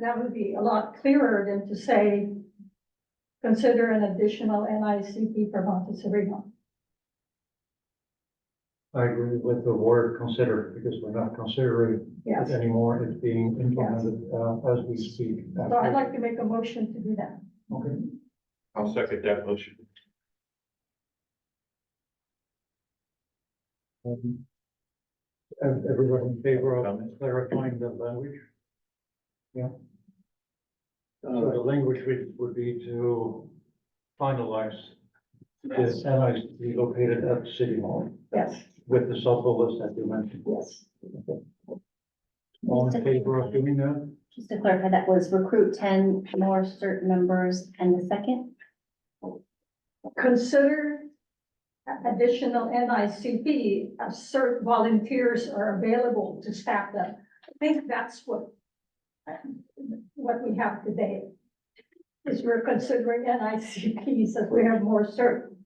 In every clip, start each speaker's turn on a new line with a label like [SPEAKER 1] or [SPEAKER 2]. [SPEAKER 1] that would be a lot clearer than to say, consider an additional NICP for Montecito.
[SPEAKER 2] I agree with the word consider, because we're not considering
[SPEAKER 1] Yes.
[SPEAKER 2] it anymore, it's being implemented, uh, as we speak.
[SPEAKER 1] So I'd like to make a motion to do that.
[SPEAKER 2] Okay,
[SPEAKER 3] I'll second that motion.
[SPEAKER 2] um, ev- Everyone in favor of clarifying the language? Yeah. So Uh, the language would, would be to finalize this, and I be located at City Hall
[SPEAKER 1] Yes,
[SPEAKER 2] with the sub-list that you mentioned.
[SPEAKER 1] yes.
[SPEAKER 2] All in favor of doing that?
[SPEAKER 4] Just to clarify, that was recruit ten more cert members and the second?
[SPEAKER 1] Consider a- additional NICP, as uh, cert volunteers are available to staff them. I think that's what, what we have today. Is we're considering NICPs as we have more cert.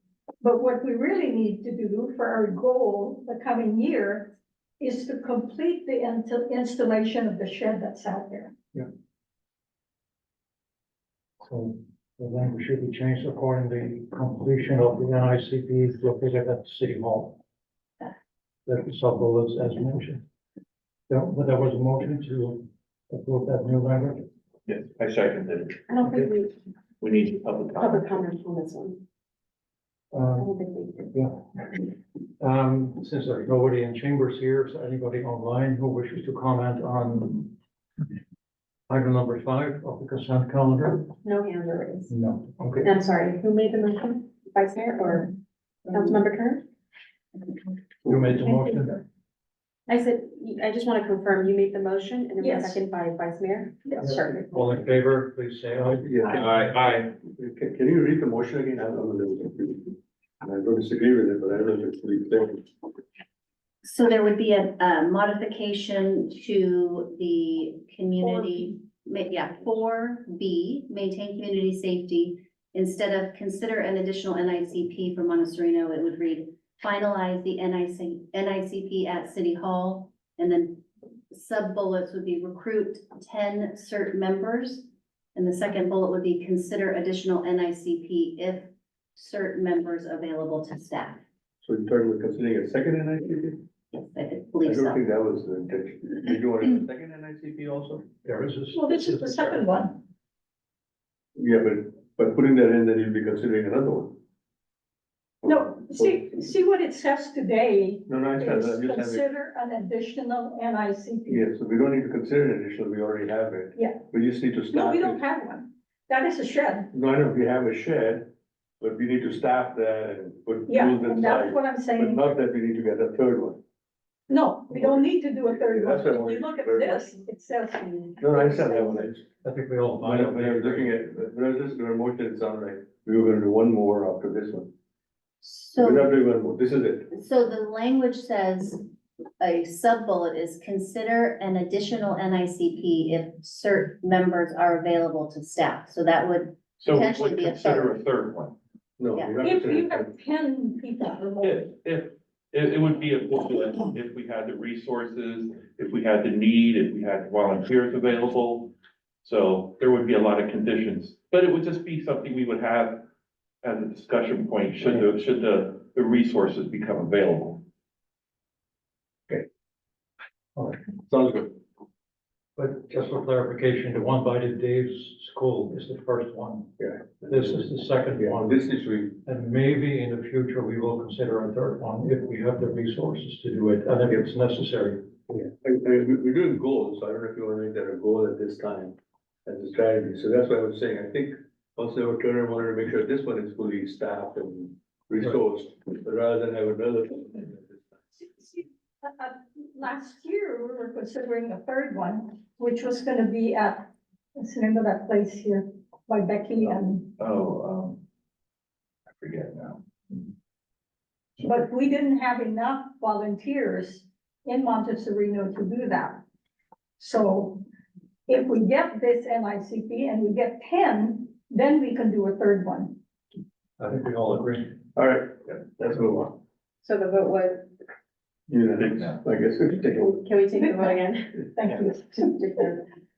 [SPEAKER 1] But what we really need to do for our goal the coming year is to complete the insta- installation of the shed that's out there.
[SPEAKER 2] So the language should be changed according to the completion of the NICP located at the City Hall. That the sub-bullets as mentioned. There, well, there was a motion to approve that new language.
[SPEAKER 3] Yes, I second it.
[SPEAKER 5] I don't think we,
[SPEAKER 3] We need public
[SPEAKER 5] public
[SPEAKER 3] comment.
[SPEAKER 5] comment on this one. I
[SPEAKER 2] Um,
[SPEAKER 5] don't think we did.
[SPEAKER 2] um, since there's nobody in chambers here, is there anybody online who wishes to comment on item number five of the consent calendar?
[SPEAKER 5] No hands are raised.
[SPEAKER 2] No. Okay.
[SPEAKER 5] I'm sorry, who made the motion? Vice Mayor or Councilmember Kern?
[SPEAKER 2] You made the motion.
[SPEAKER 5] I said, I just want to confirm, you made the motion and it was
[SPEAKER 1] Yes.
[SPEAKER 5] seconded by Vice Mayor?
[SPEAKER 1] Yes.
[SPEAKER 5] Sure.
[SPEAKER 2] All in favor, please say aye.
[SPEAKER 3] Aye, aye.
[SPEAKER 6] Can, can you read the motion again? I don't know. I don't disagree with it, but I don't know if it's pretty clear.
[SPEAKER 4] So there would be a, a modification to the community, ma- yeah, four B, maintain community safety. Instead of consider an additional NICP for Montecito, it would read finalize the NIC, NICP at City Hall. And then sub-bullets would be recruit ten cert members. And the second bullet would be consider additional NICP if cert members available to staff.
[SPEAKER 6] So you're talking about considering a second NICP?
[SPEAKER 4] Yes, I
[SPEAKER 6] I
[SPEAKER 4] believe so.
[SPEAKER 6] don't think that was the intention. Did you want a second NICP also?
[SPEAKER 2] There is a.
[SPEAKER 1] Well, this is the second one.
[SPEAKER 6] Yeah, but, but putting that in, then you'll be considering another one. Oh,
[SPEAKER 1] No, see, see what it says today
[SPEAKER 6] No, no, I
[SPEAKER 1] is
[SPEAKER 6] understand. I'm just having,
[SPEAKER 1] consider an additional NICP.
[SPEAKER 6] yeah, so we don't need to consider an additional, we already have it.
[SPEAKER 1] Yeah.
[SPEAKER 6] We just need to
[SPEAKER 1] No,
[SPEAKER 6] staff
[SPEAKER 1] we don't
[SPEAKER 6] it.
[SPEAKER 1] have one. That is a shed.
[SPEAKER 6] No, I know, we have a shed, but we need to staff that and put
[SPEAKER 1] Yeah,
[SPEAKER 6] rules
[SPEAKER 1] and that's
[SPEAKER 6] inside.
[SPEAKER 1] what I'm
[SPEAKER 6] But
[SPEAKER 1] saying.
[SPEAKER 6] not that we need to get a third one.
[SPEAKER 1] No, we don't need to do a third one.
[SPEAKER 6] That's what I
[SPEAKER 1] If you
[SPEAKER 6] wanted to
[SPEAKER 1] look at
[SPEAKER 6] clarify.
[SPEAKER 1] this, it says.
[SPEAKER 6] No, no, I understand that one. I just-
[SPEAKER 2] I think we all.
[SPEAKER 6] When I, when I was looking at, when I was listening to our motion, it sounded like we were gonna do one more after this one. We're
[SPEAKER 4] So,
[SPEAKER 6] not doing one more, this is it.
[SPEAKER 4] so the language says, a sub-bullet is consider an additional NICP if cert members are available to staff. So that would,
[SPEAKER 3] So we
[SPEAKER 4] Potentially
[SPEAKER 3] would
[SPEAKER 4] be a
[SPEAKER 3] consider a
[SPEAKER 4] third.
[SPEAKER 3] third one.
[SPEAKER 6] No.
[SPEAKER 4] Yeah.
[SPEAKER 6] we're not
[SPEAKER 1] If
[SPEAKER 6] considering
[SPEAKER 1] you have ten people or more,
[SPEAKER 3] If, if, it, it would be a equivalent if we had the resources, if we had the need, if we had volunteers available. So there would be a lot of conditions, but it would just be something we would have as a discussion point, should the, should the, the resources become available.
[SPEAKER 6] it. Sounds good.
[SPEAKER 2] But just for clarification, the one by the Dave's school is the first one.
[SPEAKER 6] Yeah.
[SPEAKER 2] This is the second
[SPEAKER 6] Yeah,
[SPEAKER 2] one,
[SPEAKER 6] this is we,
[SPEAKER 2] and maybe in the future we will consider a third one if we have the resources to do it, and if it's necessary.
[SPEAKER 6] yeah, I, I, we- we're doing goals, so I don't know if you wanna make that a goal at this time, as a strategy, so that's what I was saying, I think also Turner wanted to make sure this one is fully staffed and resourced, rather than have another.
[SPEAKER 1] see- see, uh, uh, last year, we were considering a third one, which was gonna be at, let's remember that place here by Becky and,
[SPEAKER 3] Oh, um, I forget now.
[SPEAKER 1] but we didn't have enough volunteers in Montezurino to do that. So if we get this NICP and we get ten, then we can do a third one.
[SPEAKER 2] I think we all agree.
[SPEAKER 6] All right, yeah, let's move on.
[SPEAKER 5] So the vote was,
[SPEAKER 6] Yeah, I guess we can take a
[SPEAKER 5] can we take the vote again?
[SPEAKER 1] Thank you.
[SPEAKER 5] Just to clarify.